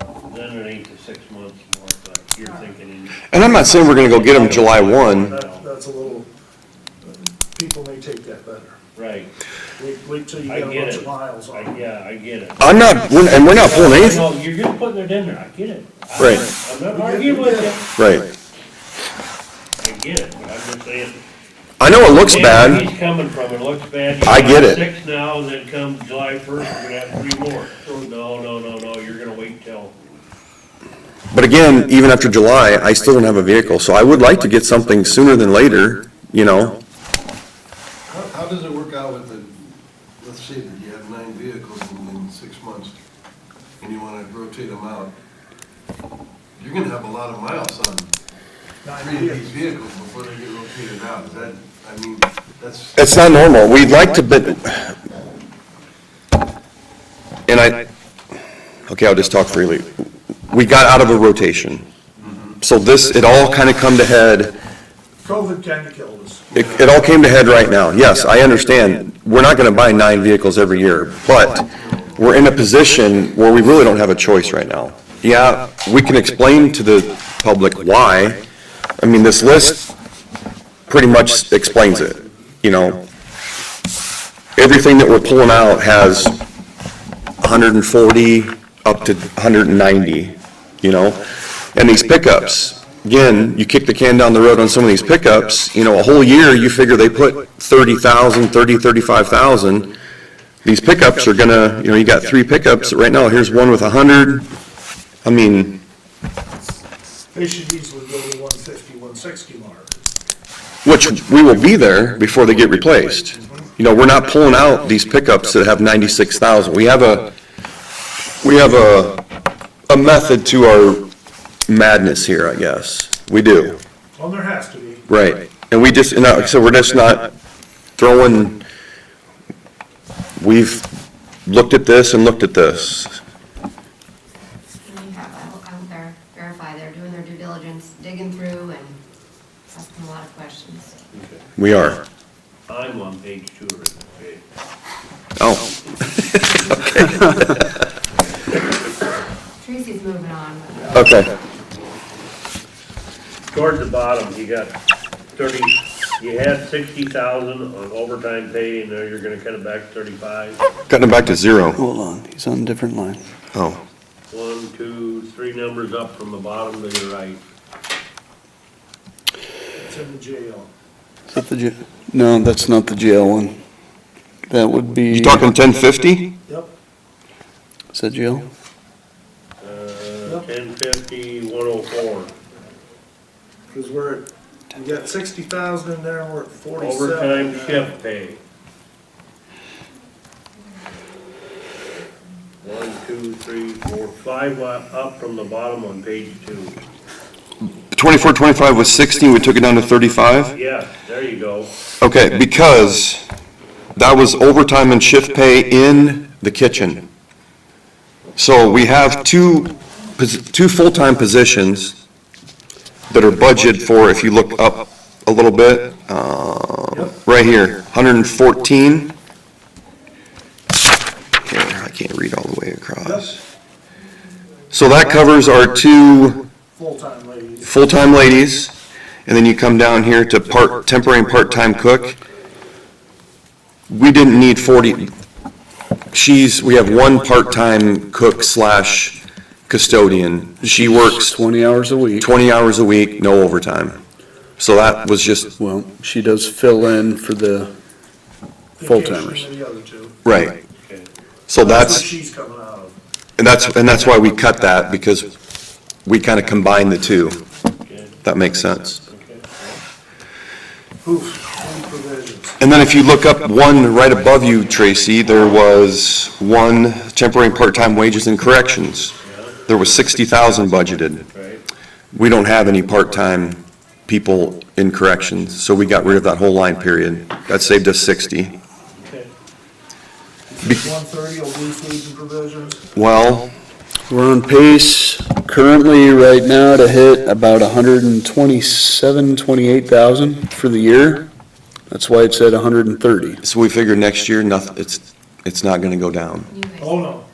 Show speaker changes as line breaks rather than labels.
underneath the six months mark, like you're thinking.
And I'm not saying we're gonna go get them July one.
That, that's a little, people may take that better.
Right,
Wait, wait till you
I
get a
get
bunch
it.
of miles on
I,
it.
yeah, I get it.
I'm not, we're- and we're not pulling anything,
No, you're just putting it in there, I get it. I-
Right.
I'm not arguing with you,
right.
I get it, but I'm just saying.
I know it looks
where
bad,
He's coming from, it looks bad. You
I
got
get it.
Six now, and then come July first, we're gonna have three more. So, No, no, no, no, you're gonna wait till,
but again, even after July, I still don't have a vehicle, so I would like to get something sooner than later, you know?
How, how does it work out with the, let's say that you have nine vehicles in, in six months, and you wanna rotate them out, you're gonna have a lot of miles on
Nine
three of these
years.
vehicles before they get rotated out, is that, I mean, that's,
It's not normal, we'd like to, but, and I, okay, I'll just talk freely. We got out of a rotation. So this, it all kind of come to head,
COVID kinda killed us.
it, it all came to head right now. Yes, I understand, we're not gonna buy nine vehicles every year, but we're in a position where we really don't have a choice right now. Yeah, we can explain to the public why. I mean, this list pretty much explains it, you know? Everything that we're pulling out has 140 up to 190, you know? And these pickups, again, you kick the can down the road on some of these pickups, you know, a whole year, you figure they put 30,000, 30, 35,000. These pickups are gonna, you know, you got three pickups right now, here's one with 100. I mean,
They should easily go to 150, 160 mark.
which we will be there before they get replaced. You know, we're not pulling out these pickups that have 96,000. We have a, we have a, a method to our madness here, I guess. We do.
Well, there has to be.
Right, and we just, and I- so we're just not throwing, we've looked at this and looked at this.
We have out out there, verify, they're doing their due diligence, digging through and asking a lot of questions.
We are.
I'm on page two of it, okay?
Oh,
Tracy's moving on. but-
okay.
Toward the bottom, you got thirty, you had sixty thousand on overtime pay, and now you're gonna cut it back to thirty-five.
Cutting it back to zero.
Hold on, he's on a different line.
Oh,
One, two, three numbers up from the bottom to your right.
It's in the jail.
Is that the jail? No, that's not the jail one. That would be.
you talking 1050?
Yep,
Is that jail?
Uh, ten fifty, one oh four.
cause we're, at- we got sixty thousand in there and we're at forty-seven.
Overtime
now.
shift pay. One, two, three, four, five wa- up from the bottom on page two.
24, 25 was 60, we took it down to 35?
Yeah, there you go.
Okay, because that was overtime and shift pay in the kitchen. So we have two, posi- two full-time positions that are budgeted for, if you look up a little bit, uh, right here, 114. Here, I can't read all the way across. So that covers our two
Full-time ladies.
full-time ladies, and then you come down here to part, temporary and part-time cook. We didn't need forty, she's, we have one part-time cook slash custodian. She works
Twenty hours a week.
twenty hours a week, no overtime. So that was just,
Well, she does fill in for the, Full-timers.
Vacation of The other two.
right.
Okay.
So
where
that's,
She's coming out of.
and that's, and that's why we cut that, because we kind of combined the two.
Okay.
That makes sense.
Okay.
Oof, any provisions.
And then if you look up one right above you, Tracy, there was one temporary and part-time wages and corrections. There was sixty thousand budgeted.
Right,
We don't have any part-time people in corrections, so we got rid of that whole line period. That saved us sixty.
okay.
One thirty will be food and provisions.
Well,
we're on pace currently right now to hit about a hundred and twenty-seven, twenty-eight thousand for the year. That's why it's at a hundred and thirty.
so we figure next year, nothing, it's, it's not gonna go down.
You guys-
Oh, no.